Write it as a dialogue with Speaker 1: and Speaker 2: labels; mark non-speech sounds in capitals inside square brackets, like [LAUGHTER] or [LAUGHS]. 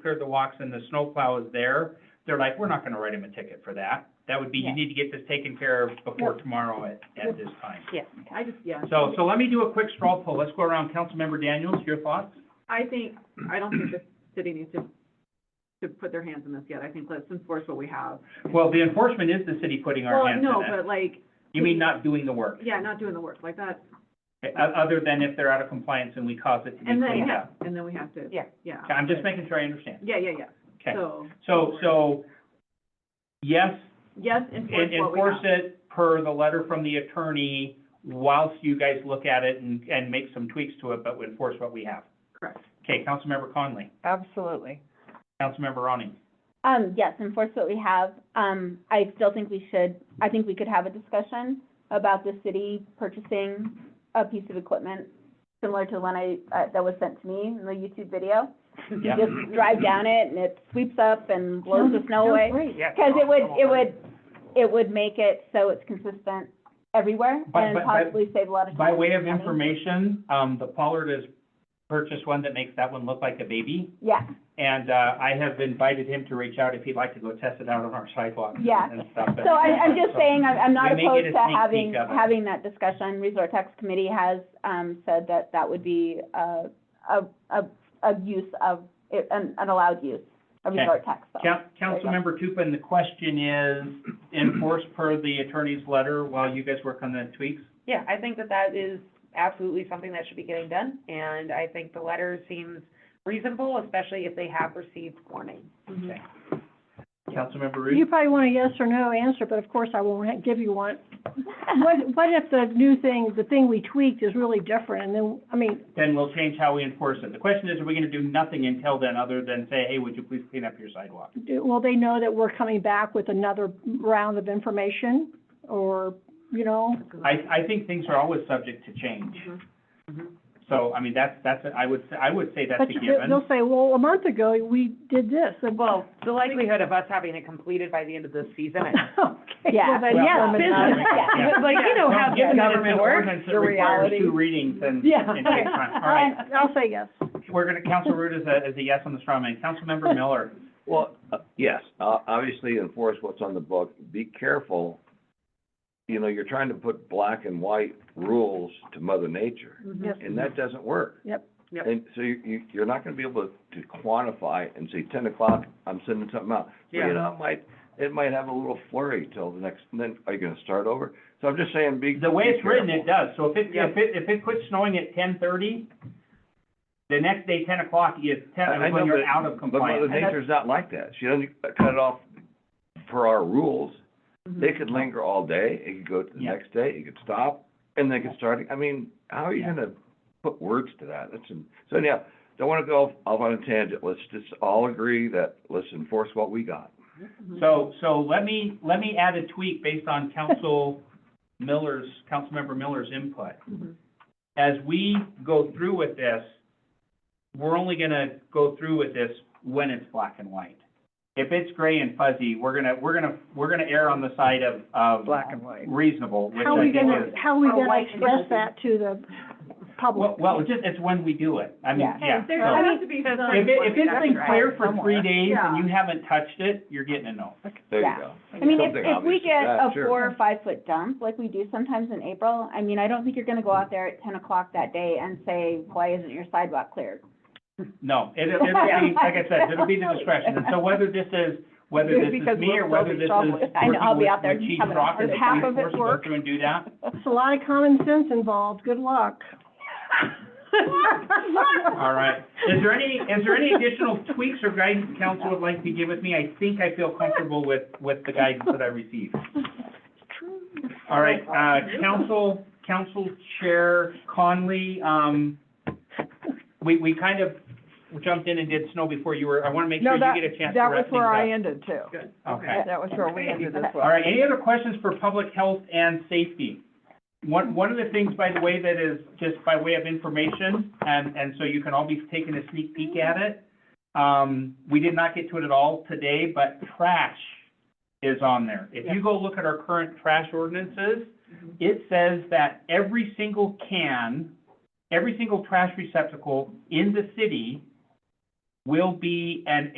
Speaker 1: cleared the walks and the snowplow is there, they're like, we're not gonna write him a ticket for that. That would be, you
Speaker 2: Yeah.
Speaker 1: need to get this taken care of before tomorrow at, at this time.
Speaker 2: Yeah.
Speaker 3: I just, yeah.
Speaker 1: So, so let me do a quick straw poll. Let's go around. Councilmember Daniels, your thoughts?
Speaker 3: I think, I don't think the city needs to, to put their hands in this yet. I think let's enforce what we have.
Speaker 1: Well, the enforcement is the city putting our hands in
Speaker 3: Well, no,
Speaker 1: it.
Speaker 3: but like,
Speaker 1: You mean not doing the work,
Speaker 3: yeah, not doing the work like that,
Speaker 1: o- other than if they're out of compliance and we cause it to be
Speaker 3: and then,
Speaker 1: cleaned
Speaker 3: yeah,
Speaker 1: up?
Speaker 3: and then we have to,
Speaker 2: Yeah.
Speaker 3: yeah.
Speaker 1: Okay, I'm just making sure I understand.
Speaker 3: Yeah, yeah, yeah.
Speaker 1: Okay.
Speaker 3: So,
Speaker 1: So, so, yes,
Speaker 3: yes, enforce
Speaker 1: and
Speaker 3: what we have.
Speaker 1: enforce it per the letter from the attorney whilst you guys look at it and, and make some tweaks to it, but enforce what we have.
Speaker 3: Correct.
Speaker 1: Okay, Councilmember Conley,
Speaker 2: Absolutely.
Speaker 1: Councilmember Ronnie.
Speaker 4: Um, yes, enforce what we have. Um, I still think we should, I think we could have a discussion about the city purchasing a piece of equipment similar to the one I, uh, that was sent to me in the YouTube video. You [LAUGHS]
Speaker 1: Yeah.
Speaker 4: just drive down it and it sweeps up and blows the snow away.
Speaker 2: Yeah.
Speaker 4: Cause it would, it would, it would make it so it's consistent everywhere
Speaker 1: By-
Speaker 4: and
Speaker 1: by- by-
Speaker 4: possibly save a lot of
Speaker 1: By
Speaker 4: time.
Speaker 1: way of
Speaker 4: and money.
Speaker 1: information, um, the Pollard has purchased one that makes that one look like a baby.
Speaker 4: Yeah,
Speaker 1: And, uh, I have invited him to reach out if he'd like to go test it out on our sidewalks
Speaker 4: Yeah.
Speaker 1: and stuff.
Speaker 4: so I, I'm just saying, I'm, I'm not
Speaker 1: We may get a
Speaker 4: opposed to
Speaker 1: sneak peek
Speaker 4: having,
Speaker 1: of it.
Speaker 4: having that discussion. Resort Tax Committee has, um, said that that would be, uh, a, a, a use of, an, an allowed use, a
Speaker 1: Okay.
Speaker 4: resort tax, [LAUGHS] so.
Speaker 1: Coun- Councilmember Tupin, the question is, enforce per the attorney's letter while you guys work on the tweaks?
Speaker 2: Yeah, I think that that is absolutely something that should be getting done, and I think the letter seems reasonable, especially if they have received warning.
Speaker 3: Mhm.
Speaker 1: Okay. Councilmember
Speaker 5: You
Speaker 1: Root?
Speaker 5: probably want a yes or no answer, but of course I won't ha- give you one. What, what if the new thing, the thing we tweaked is really different, and then, I mean,
Speaker 1: Then we'll change how we enforce it. The question is, are we gonna do nothing until then, other than say, hey, would you please clean up your sidewalk?
Speaker 5: do- will they know that we're coming back with another round of information? Or, you know,
Speaker 1: I, I think things are always subject to change.
Speaker 3: Mhm.
Speaker 2: Mm-hmm.
Speaker 1: So, I mean, that's, that's, I would, say- I would say that's
Speaker 5: but
Speaker 1: a
Speaker 5: you-
Speaker 1: given.
Speaker 5: they'll say, well, a month ago, we did this, and well, [LAUGHS]
Speaker 2: Well, the likelihood of us having it completed by the end of this season, [LAUGHS] I
Speaker 5: okay,
Speaker 4: Yeah.
Speaker 5: well then,
Speaker 1: Well,
Speaker 5: yeah,
Speaker 1: yeah.
Speaker 5: business. [LAUGHS]
Speaker 1: Yeah.
Speaker 2: Like, you know how
Speaker 1: Well, given that it's an
Speaker 2: government works,
Speaker 1: ordinance that
Speaker 2: the
Speaker 1: requires
Speaker 2: reality.
Speaker 1: Two readings and,
Speaker 5: Yeah.
Speaker 1: and takes time.
Speaker 5: [LAUGHS]
Speaker 1: All right,
Speaker 5: And I'll say yes.
Speaker 1: we're gonna, Council Root is a, is a yes on the straw man. Councilmember
Speaker 6: [LAUGHS]
Speaker 1: Miller?
Speaker 6: Well, uh, yes, uh, obviously enforce what's on the book, be careful. You know, you're trying to put black and white rules to mother nature,
Speaker 3: Mhm.
Speaker 5: Yes.
Speaker 6: and
Speaker 1: Mm-hmm.
Speaker 6: that doesn't work.
Speaker 5: Yep.
Speaker 2: Yep.
Speaker 6: And so you, you, you're not gonna be able to quantify and say ten o'clock, I'm sending something out. So,
Speaker 2: Yeah.
Speaker 6: You know, it might, it might have a little flurry till the next, and then, are you gonna start over? So I'm just saying, be.
Speaker 1: The way
Speaker 6: be
Speaker 1: it's written,
Speaker 6: careful.
Speaker 1: it does, so if it,
Speaker 2: Yeah.
Speaker 1: if it, if it quits snowing at ten thirty, the next day, ten o'clock is ten,
Speaker 6: I- I
Speaker 1: is when
Speaker 6: know,
Speaker 1: you're
Speaker 6: but-
Speaker 1: out of compliance.
Speaker 6: But mother nature's not like that. She doesn't cut it off for our rules.
Speaker 3: Mhm.
Speaker 4: Mm-hmm.
Speaker 6: They could linger all day, it could go to the
Speaker 1: Yeah.
Speaker 6: next day, it could stop, and they could start, I mean, how are you
Speaker 1: Yeah.
Speaker 6: gonna put words to that? That's, an- so anyhow, don't wanna go off- off on a tangent, let's just all agree that, let's enforce what we got.
Speaker 1: So, so let me, let me add a tweak based on
Speaker 2: [LAUGHS]
Speaker 1: Council Miller's, Councilmember Miller's input.
Speaker 3: Mhm.
Speaker 1: As we go through with this, we're only gonna go through with this when it's black and white. If it's gray and fuzzy, we're gonna, we're gonna, we're gonna err on the side of, of
Speaker 2: Black and white.
Speaker 1: reasonable, which
Speaker 5: How are
Speaker 1: I
Speaker 5: we
Speaker 1: think
Speaker 5: gonna,
Speaker 1: is.
Speaker 5: how are we
Speaker 3: Or
Speaker 5: gonna
Speaker 3: white and
Speaker 5: express
Speaker 3: fuzzy.
Speaker 5: that to the public?
Speaker 1: Well, well, it's just, it's when we do it, I mean,
Speaker 4: Yeah.
Speaker 1: yeah.
Speaker 3: There
Speaker 1: so-
Speaker 3: has to be some.
Speaker 1: If it, if it's
Speaker 2: That's
Speaker 1: been
Speaker 2: right.
Speaker 3: [LAUGHS]
Speaker 1: clear for three days and
Speaker 3: Yeah.
Speaker 1: you haven't touched it, you're getting a no.
Speaker 6: There you
Speaker 4: Yeah.
Speaker 6: go.
Speaker 4: I mean, if,
Speaker 6: Something
Speaker 4: if we
Speaker 6: obvious
Speaker 4: get
Speaker 6: like
Speaker 4: a
Speaker 6: that, sure.
Speaker 4: four or five foot dump, like we do sometimes in April, I mean, I don't think you're gonna go out there at ten o'clock that day and say, why isn't your sidewalk cleared?
Speaker 1: No, it, it'll be, like I said, it'll be the discretion, and so whether this is, whether this is
Speaker 2: Because
Speaker 1: me or
Speaker 2: we'll
Speaker 1: whether
Speaker 2: still be
Speaker 1: this is
Speaker 2: troubled.
Speaker 4: I know, I'll be
Speaker 1: working
Speaker 4: out there
Speaker 1: with- with Chief
Speaker 4: having a
Speaker 1: Rock as
Speaker 4: heart
Speaker 1: the
Speaker 5: attack.
Speaker 1: police
Speaker 5: Half of it
Speaker 1: force, go
Speaker 5: worked.
Speaker 1: through and do that.
Speaker 5: It's a lot of common sense involved, good luck.
Speaker 1: All right, is there any, is there any additional tweaks or guidance council would like to give with me? I think I feel comfortable with, with the guidance that I received. All right, uh, council, council chair Conley, um, we, we kind of jumped in and did snow before you were, I want to make sure
Speaker 7: No,
Speaker 1: you
Speaker 7: that-
Speaker 1: get a chance to
Speaker 7: That
Speaker 1: wrap
Speaker 7: was
Speaker 1: things
Speaker 7: where I
Speaker 1: up.
Speaker 7: ended too.
Speaker 2: Good.
Speaker 1: Okay.
Speaker 7: That was where we ended as well.
Speaker 1: All right, any other questions for public health and safety? One, one of the things, by the way, that is just by way of information, and, and so you can all be taking a sneak peek at it. Um, we did not get to it at all today, but trash is on there. If you go look at our current trash ordinances, it says that every single can, every single trash receptacle in the city will be an